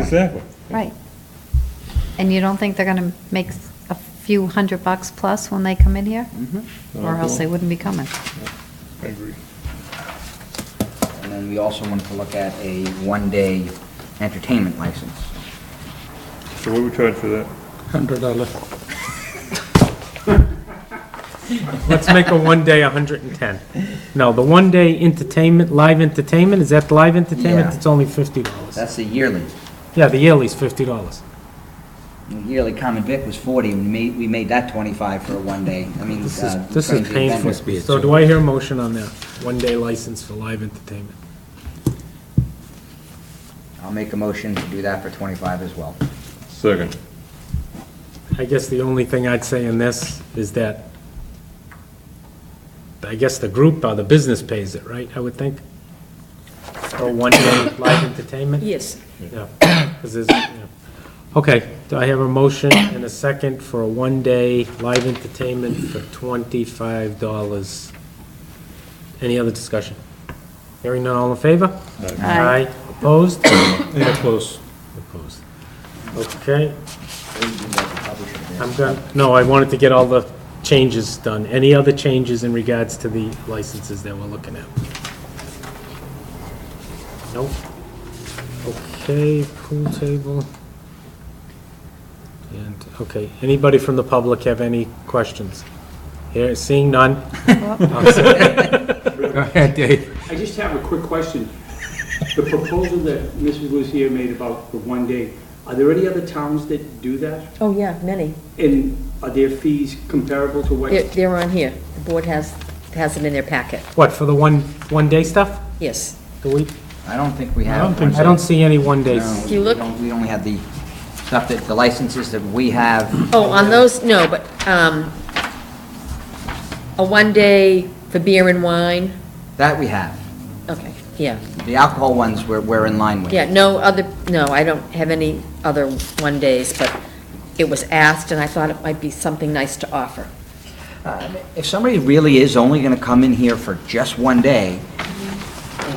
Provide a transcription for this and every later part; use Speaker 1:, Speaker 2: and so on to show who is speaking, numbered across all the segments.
Speaker 1: Exactly.
Speaker 2: Right. And you don't think they're going to make a few hundred bucks plus when they come in here?
Speaker 3: Mm-hmm.
Speaker 2: Or else they wouldn't be coming.
Speaker 1: I agree.
Speaker 3: And then we also wanted to look at a one-day entertainment license.
Speaker 1: So what we charge for that?
Speaker 4: Hundred dollar. Let's make a one day a hundred and ten. No, the one day entertainment, live entertainment, is that the live entertainment?
Speaker 3: Yeah.
Speaker 4: It's only fifty dollars.
Speaker 3: That's the yearly.
Speaker 4: Yeah, the yearly's fifty dollars.
Speaker 3: The Yearly common vic was 40, and we made, we made that 25 for a one-day, I mean.
Speaker 4: This
Speaker 3: uh,
Speaker 4: is, this is
Speaker 3: transient vendor.
Speaker 4: painful. So do I hear a motion on that? One day license for live entertainment.
Speaker 3: I'll make a motion to do that for 25 as well.
Speaker 1: Second.
Speaker 4: I guess the only thing I'd say in this is that, I guess the group or the business pays it, right, I would think? Or one day live entertainment?
Speaker 5: Yes.
Speaker 4: Yeah, 'cause there's- yeah. Okay, do I have a motion and a second for a one-day live entertainment for twenty-five dollars? Any other discussion? Hearing none, all in favor?
Speaker 2: Aye.
Speaker 4: opposed? Yeah, opposed. Opposed. Okay, I'm done, no, I wanted to get all the changes done. Any other changes in regards to the licenses that we're looking at? Nope. Okay, pool table. And, okay, anybody from the public have any questions? Here, seeing none?
Speaker 6: I just have a quick question. The proposal that Mrs. Lucia made about the one day, are there any other towns that do that?
Speaker 5: Oh, yeah, many.
Speaker 6: And are their fees comparable to what?
Speaker 5: They're, they're on here. The board has, has them in their packet.
Speaker 4: What, for the one, one-day stuff?
Speaker 5: Yes.
Speaker 4: Do we,
Speaker 3: I don't think we have.
Speaker 4: I don't see any one-days.
Speaker 3: No,
Speaker 5: You
Speaker 3: we
Speaker 5: look-
Speaker 3: don't- We only have the stuff that, the licenses that we have.
Speaker 5: Oh, on those, no, but, um, a one day for beer and wine,
Speaker 3: That we have.
Speaker 5: okay, yeah.
Speaker 3: The alcohol ones, we're, we're in line with.
Speaker 5: Yeah, no other, no, I don't have any other one days, but it was asked, and I thought it might be something nice to offer.
Speaker 3: Uh, If somebody really is only gonna come in here for just one day,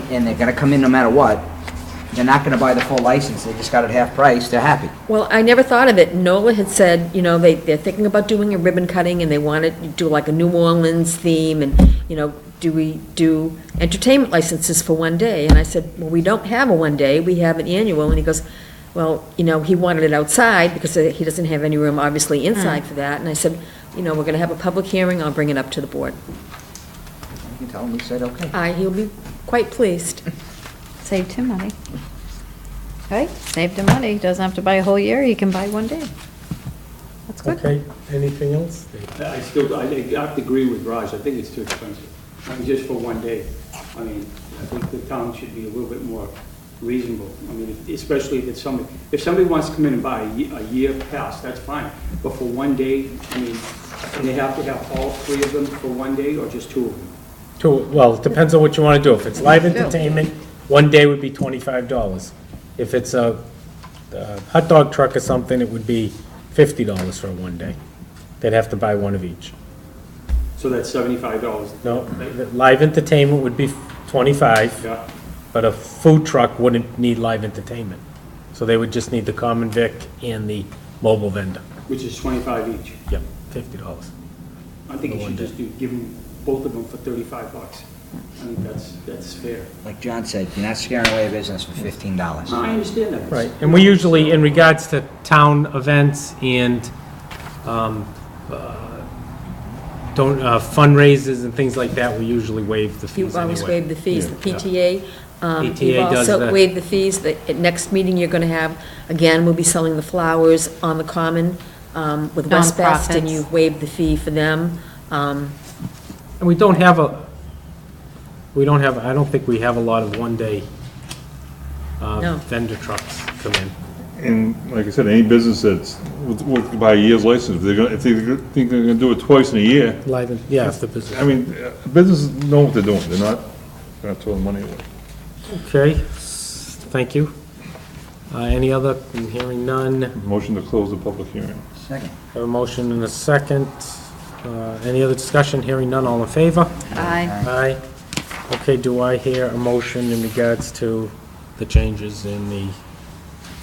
Speaker 3: and they're gonna come in no matter what, they're not gonna buy the full license, they just got it half price, they're happy.
Speaker 5: Well, I never thought of it. Nola had said, you know, they, they're thinking about doing a ribbon cutting, and they want to do like a New Orleans theme, and, you know, do we do entertainment licenses for one day? And I said, well, we don't have a one day, we have an annual, and he goes, well, you know, he wanted it outside, because he doesn't have any room, obviously, inside for that, and I said, you know, we're gonna have a public hearing, I'll bring it up to the board.
Speaker 3: You can tell them, we said, okay.
Speaker 5: I, he'll be quite pleased.
Speaker 2: Saved him money. Right? Saved him money. He Doesn't have to buy a whole year. He can buy one day. That's good.
Speaker 4: Okay, anything else?
Speaker 6: I still, I think- I have to agree with Raj, I think it's too expensive, I mean, just for one day. I mean, I think the town should be a little bit more reasonable. I mean, especially if it's somebody, if somebody wants to come in and buy a ye- a year pass, that's fine. But for one day, I mean, and they have to have all three of them for one day or just two of them?
Speaker 4: Two, well, it depends on what you want to do. If it's live entertainment, one day would be twenty-five dollars. If it's a uh, hot dog truck or something, it would be fifty dollars for one day. They'd have to buy one of each.
Speaker 6: So that's seventy-five dollars.
Speaker 4: No, the live entertainment would be twenty-five,
Speaker 6: Yeah,
Speaker 4: but a food truck wouldn't need live entertainment. So they would just need the common vic and the mobile vendor.
Speaker 6: which is twenty-five each.
Speaker 4: Yep, fifty dollars.
Speaker 6: I think you
Speaker 4: one
Speaker 6: should
Speaker 4: day.
Speaker 6: just do, give them, both of them for thirty-five bucks. I think that's, that's fair.
Speaker 3: Like John said, you're not scaring away a business for fifteen dollars.
Speaker 6: I understand that.
Speaker 4: Right, and we usually, in regards to town events and um, uh, don't, uh, fundraisers and things like that, we usually waive the
Speaker 5: You
Speaker 4: fees
Speaker 5: always
Speaker 4: anyway.
Speaker 5: waive the fees, the
Speaker 4: Yeah.
Speaker 5: PTA. um,
Speaker 4: PTA
Speaker 5: You've
Speaker 4: does
Speaker 5: also
Speaker 4: that.
Speaker 5: waived the fees, the at next meeting you're going to have, again, we'll be selling the flowers on the common um, with West Best, and
Speaker 2: Nonprofits.
Speaker 5: you waived the fee for them. Um,
Speaker 4: And we don't have a, we don't have, I don't think we have a lot of one-day
Speaker 5: No.
Speaker 4: uh, vendor trucks come in.
Speaker 1: And like I said, any business that's, would- would buy a year's license, if they're gonna, if they think they're gonna do it twice in a year,
Speaker 4: Live, and- yeah, it's the business.
Speaker 1: I mean, uh, businesses know what they're doing, they're not, they're not throwing money away.
Speaker 4: Okay, s- thank you. Uh, Any other, hearing none,
Speaker 1: Motion to close the public hearing.
Speaker 3: Second.
Speaker 4: Have a motion and a second. Uh, Any other discussion, hearing none, all in favor?
Speaker 2: Aye.
Speaker 4: Aye. Okay, do I hear a motion in regards to the changes in the